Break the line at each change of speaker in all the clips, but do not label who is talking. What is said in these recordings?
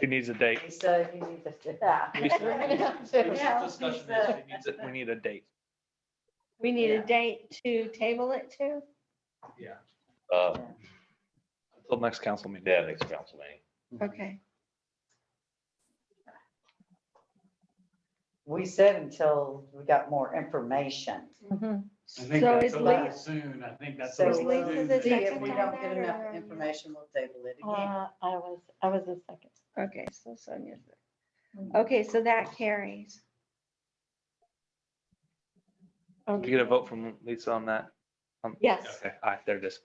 She needs a date.
Lisa, you need to, yeah.
Lisa.
We're gonna have
It was
to-
just discussion that she needs it.
We need a date.
We need
Yeah.
a date to table it to?
Yeah.
Uh,
Till next council meeting.
yeah, next council meeting.
Okay.
We said until we got more information.
Mhm.
I
So
think that's
is
a lot
Lisa,
soon. I think that's.
So
what
is
we'll
Lisa
do
the
next
See, if
second
we
week.
don't get
or-
enough information, we'll table it again.
Uh, I was, I was the second. Okay, so Sonia's.
Mm-hmm.
the- Okay, so that carries.
You get a vote from Lisa on that? Um,
Yes.
Okay, all right, there it is.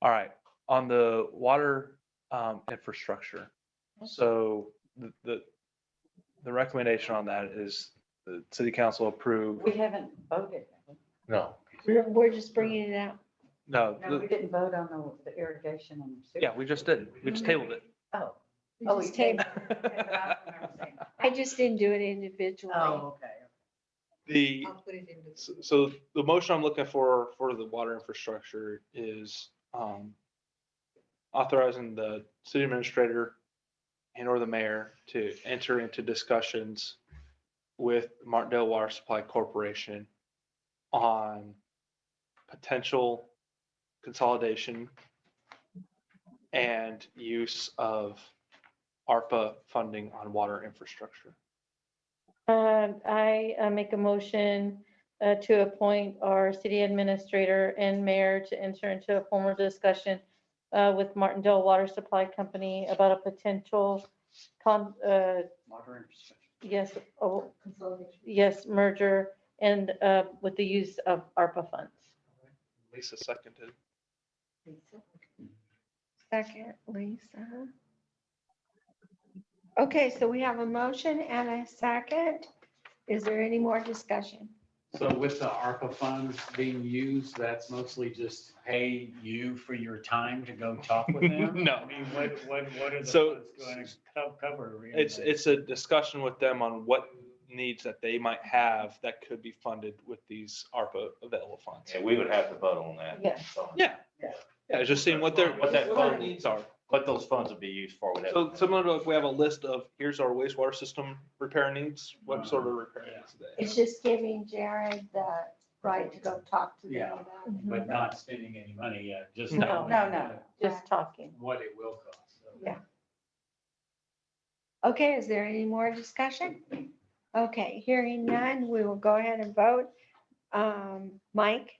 All right, on the water um, infrastructure. So the- the, the recommendation on that is the city council approve,
We haven't voted.
No.
We're, we're just bringing it out.
no,
No,
the-
we didn't vote on the- the irrigation and. sewer.
yeah, we just did. We just tabled it.
Oh.
We
oh, we
just tabled-
tabled it. Okay, but I don't remember saying-
I just didn't do it individually.
Oh, okay.
The,
I'll put it into.
so- so the motion I'm looking for, for the water infrastructure is um, authorizing the city administrator and or the mayor to enter into discussions with Martindale Water Supply Corporation on potential consolidation and use of ARPA funding on water infrastructure.
Um, I uh, make a motion uh, to appoint our city administrator and mayor to enter into a formal discussion uh, with Martindale Water Supply Company about a potential con, uh,
Water infrastructure.
yes, oh, yes, merger and uh, with the use of ARPA funds.
Lisa seconded.
Second, Lisa. Okay, so we have a motion and a second. Is there any more discussion?
So with the ARPA funds being used, that's mostly just pay you for your time to go talk with them?
No.
I mean, what, what, what are the
So-
funds going to co- cover? really?
It's, it's a discussion with them on what needs that they might have that could be funded with these ARPA available funds.
Yeah, we would have to vote on that.
Yeah.
So,
Yeah.
Yeah.
Yeah, just seeing what their, what that fund needs are.
What those funds would be used for. would have-
So similar to if we have a list of, here's our wastewater system repair needs, what sort of repair needs
It's
today?
just giving Jared the right to go talk to
Yeah.
them about it.
But not spending any money yet, just.
No.
knowing
No, no.
Just talking.
What it will cost. so.
Yeah. Okay, is there any more discussion? Okay, hearing none, we will go ahead and vote. Um, Mike,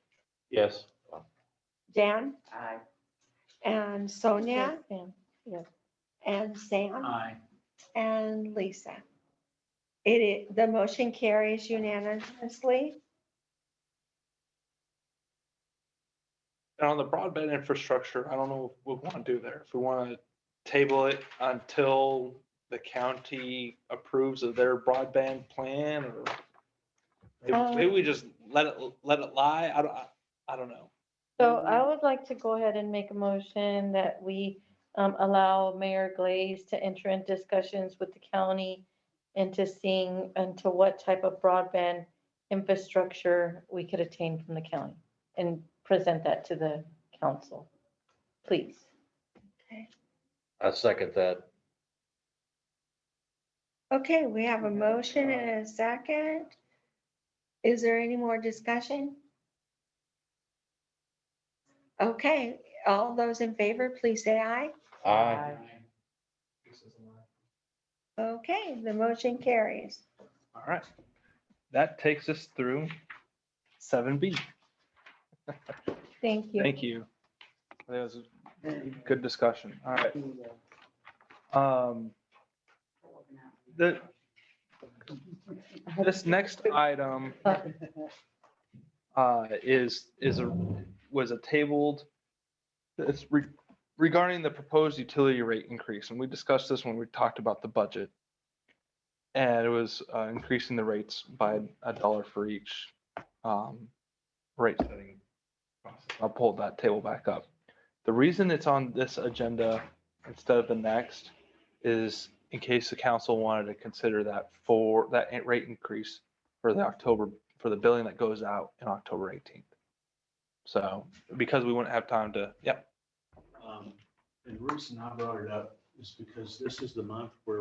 Yes.
Dan,
Aye.
and Sonia, and Sam,
Aye.
and Lisa. It, i- the motion carries unanimously.
And on the broadband infrastructure, I don't know what we want to do there. If we want to table it until the county approves of their broadband plan or maybe- maybe we just let it, let it lie. I don't, I- I don't know.
So I would like to go ahead and make a motion that we um, allow Mayor Glaze to enter in discussions with the county into seeing into what type of broadband infrastructure we could attain from the county and present that to the council, please.
I second that.
Okay, we have a motion and a second. Is there any more discussion? Okay, all those in favor, please say aye.
Aye.
Okay, the motion carries.
All right. That takes us through seven B.
Thank you.
Thank you. That was a
Then
good discussion. All right.
the, uh,
Um, the, this next item uh, is, is a, was a tabled, it's re- regarding the proposed utility rate increase, and we discussed this when we talked about the budget. And it was uh, increasing the rates by a dollar for each um, rate setting. process. I'll pull that table back up. The reason it's on this agenda instead of the next is in case the council wanted to consider that for, that in- rate increase for the October, for the billing that goes out in October 18th. So, because we wouldn't have time to, yep.
Um, And the reason I brought it up is because this is the month where